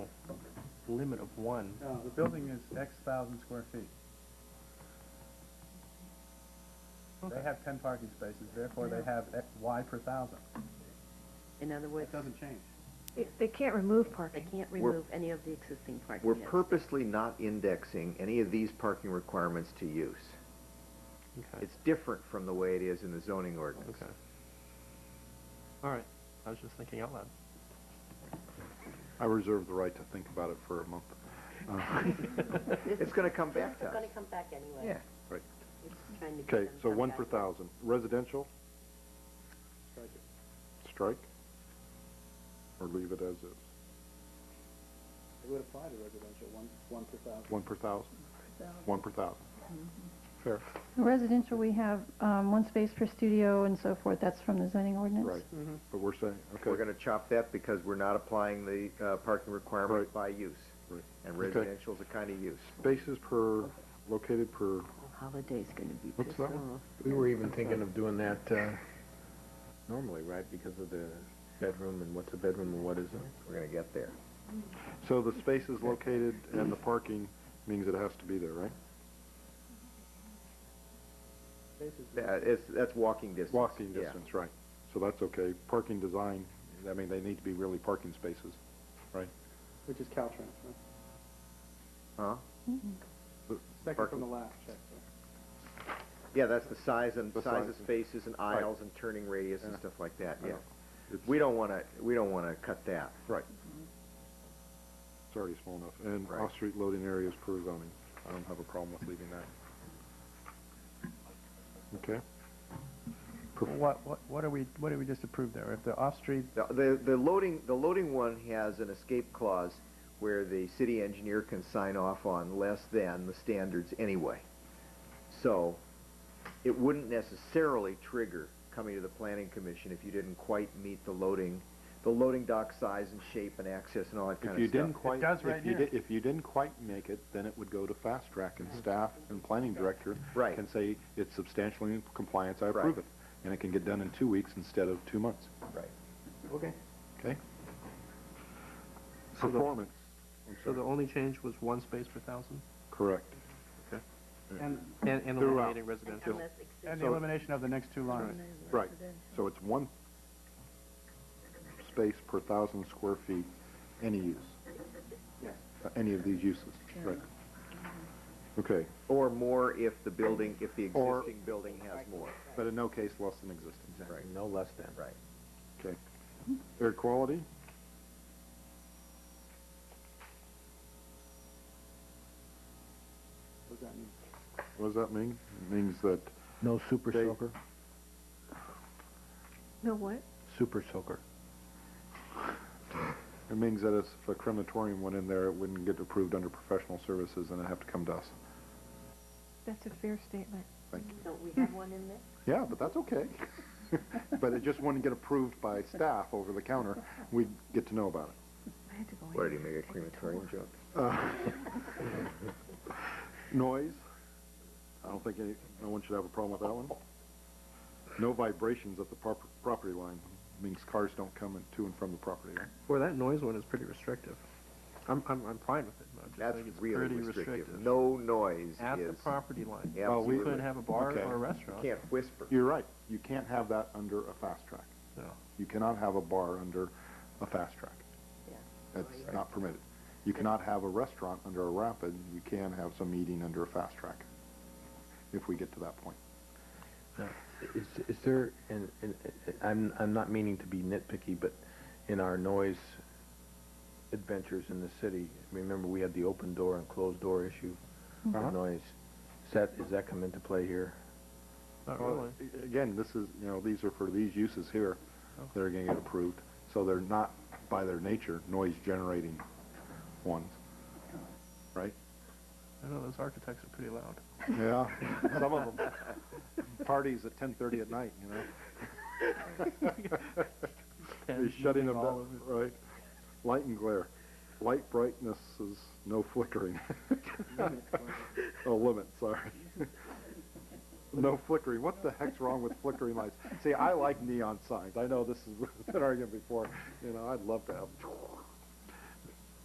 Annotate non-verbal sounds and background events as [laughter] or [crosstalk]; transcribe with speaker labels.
Speaker 1: limit of one.
Speaker 2: No, the building is X thousand square feet. They have ten parking spaces, therefore they have X- Y per thousand.
Speaker 3: In other words,
Speaker 2: It doesn't change.
Speaker 4: They- They can't remove
Speaker 3: they
Speaker 4: parking.
Speaker 3: can't
Speaker 5: We're-
Speaker 3: remove any of the existing parking.
Speaker 5: We're
Speaker 3: that's
Speaker 5: purposely not indexing any of these parking requirements to use.
Speaker 1: Okay,
Speaker 5: It's different from the way it is in the zoning ordinance.
Speaker 1: okay. All right, I was just thinking out loud.
Speaker 6: I reserve the right to think about it for a month.
Speaker 5: It's gonna come back to
Speaker 3: It's
Speaker 5: us.
Speaker 3: gonna come back anyway.
Speaker 5: Yeah.
Speaker 6: Right.
Speaker 3: It's trying to get
Speaker 6: Okay,
Speaker 3: them
Speaker 6: so
Speaker 3: some
Speaker 6: one per
Speaker 3: guidance.
Speaker 6: thousand. Residential? Strike it. Or leave it as is?
Speaker 2: It would apply to residential, one, one per thousand.
Speaker 6: One per thousand? One per thousand.
Speaker 2: Mm-hmm.
Speaker 6: Fair,
Speaker 7: Residential, we have um, one space per studio and so forth, that's from the zoning ordinance.
Speaker 6: right.
Speaker 2: Mm-hmm.
Speaker 6: But we're saying,
Speaker 5: We're
Speaker 6: okay,
Speaker 5: gonna chop that because we're not applying the, uh, parking requirement
Speaker 6: Right.
Speaker 5: by use.
Speaker 6: Right.
Speaker 5: And
Speaker 6: Okay.
Speaker 5: residential's a kind of use.
Speaker 6: spaces per, located per,
Speaker 3: Holiday's gonna be
Speaker 6: What's
Speaker 3: pissed
Speaker 6: that
Speaker 3: off.
Speaker 6: one?
Speaker 8: We were even thinking of doing that, uh, normally, right, because of the bedroom and what's a bedroom and what isn't.
Speaker 5: We're gonna get there.
Speaker 6: so the spaces located and the parking means it has to be there, right?
Speaker 5: Yeah, it's, that's walking distance.
Speaker 6: Walking
Speaker 5: Yeah.
Speaker 6: distance, right. So that's okay. Parking design, I mean, they need to be really parking spaces, right?
Speaker 2: Which is Caltrans, right?
Speaker 5: Huh?
Speaker 2: Second
Speaker 5: Parking.
Speaker 2: from the last, check.
Speaker 5: Yeah, that's the size and,
Speaker 6: The
Speaker 5: size
Speaker 6: size
Speaker 5: of
Speaker 6: and-
Speaker 5: spaces and
Speaker 6: Right.
Speaker 5: aisles and turning radius and stuff like that,
Speaker 6: I
Speaker 5: yeah.
Speaker 6: know. It's-
Speaker 5: We don't wanna, we don't wanna cut that.
Speaker 6: Right. It's already small enough. And
Speaker 5: Right.
Speaker 6: off-street loading areas per zoning. I don't have a problem with leaving that. Okay? Perf-
Speaker 2: What, what, what are we, what did we just approve there? If the off-street
Speaker 5: The- The, the loading, the loading one has an escape clause where the city engineer can sign off on less than the standards anyway. So it wouldn't necessarily trigger coming to the planning commission if you didn't quite meet the loading, the loading dock size and shape and access and all that kind
Speaker 6: If
Speaker 5: of
Speaker 6: you
Speaker 5: stuff.
Speaker 6: didn't quite,
Speaker 2: does right
Speaker 6: if you
Speaker 2: here.
Speaker 6: did, if you didn't quite make it, then it would go to fast track and staff and planning director
Speaker 5: Mm-hmm. Right.
Speaker 6: can say it's substantially in compliance, I approve
Speaker 5: Right.
Speaker 6: it. And it can get done in two weeks instead of two months.
Speaker 5: Right.
Speaker 1: Okay.
Speaker 6: Okay?
Speaker 1: So the-
Speaker 6: Performance,
Speaker 1: [laughs] So the only change was one space per thousand?
Speaker 6: correct.
Speaker 2: And,
Speaker 1: And, and
Speaker 6: Throughout.
Speaker 1: eliminating residential?
Speaker 3: Unless existing
Speaker 2: and the elimination of the next two lines.
Speaker 6: Right, so it's one space per thousand square feet, any use.
Speaker 2: Yes.
Speaker 6: Uh, Any of these uses, right. Okay,
Speaker 5: Or more if the building, if the
Speaker 6: Or-
Speaker 5: existing building has more.
Speaker 6: but in no case less than existing,
Speaker 5: Right.
Speaker 8: No less than.
Speaker 5: Right.
Speaker 6: okay. Air quality?
Speaker 2: What does that mean?
Speaker 6: What does that mean? It means that,
Speaker 8: No super
Speaker 6: They-
Speaker 8: soaker?
Speaker 4: No what?
Speaker 8: Super soaker.
Speaker 6: it means that if a crematorium went in there, it wouldn't get approved under professional services and it'd have to come to us.
Speaker 4: That's a fair statement.
Speaker 3: Don't we have one in there?
Speaker 6: Yeah, but that's okay. [laughs] But it just wouldn't get approved by staff over the counter. We'd get to know about it.
Speaker 4: I had to go in.
Speaker 5: What, did he
Speaker 4: there
Speaker 5: make a
Speaker 4: and take
Speaker 5: crematorium joke?
Speaker 6: Noise? I don't think any, no one should have a problem with that one. No vibrations at the prop- property line, means cars don't come in to and from the property line.
Speaker 1: Well, that noise one is pretty restrictive. I'm, I'm, I'm fine with it, but I just
Speaker 5: That's
Speaker 1: think it's
Speaker 5: really
Speaker 1: pretty
Speaker 5: restrictive. No noise
Speaker 1: At the
Speaker 5: is,
Speaker 1: property line.
Speaker 5: Yeah, Oh, we-
Speaker 1: You could have a bar
Speaker 6: okay.
Speaker 1: or a restaurant.
Speaker 5: can't whisper.
Speaker 6: You're right, you can't have that under a fast track.
Speaker 1: No.
Speaker 6: You cannot have a bar under a fast track.
Speaker 3: Yeah.
Speaker 6: That's not permitted. You cannot have a restaurant under a rapid, you can have some eating under a fast track, if we get to that point.
Speaker 8: Is, is there, and, and, and I'm, I'm not meaning to be nitpicky, but in our noise adventures in the city, remember we had the open door and closed door issue
Speaker 6: Uh-huh.
Speaker 8: for noise. Is that, does that come into play here?
Speaker 1: Not really. Oh.
Speaker 6: Well, a- Again, this is, you know, these are for these uses here that are gonna get approved, so they're not, by their nature, noise-generating ones, right?
Speaker 1: I know those architects are pretty loud.
Speaker 6: Yeah, some of them. Parties at ten-thirty at night, you know? They're
Speaker 1: Pens
Speaker 6: shutting them
Speaker 1: moving all
Speaker 6: down, right? Light and glare. Light brightness is no flickering. Oh, limit, sorry. No flickering. What the heck's wrong with flickering [laughs] lights? See, I like neon signs. I know this is, been argued before. You know, I'd love to have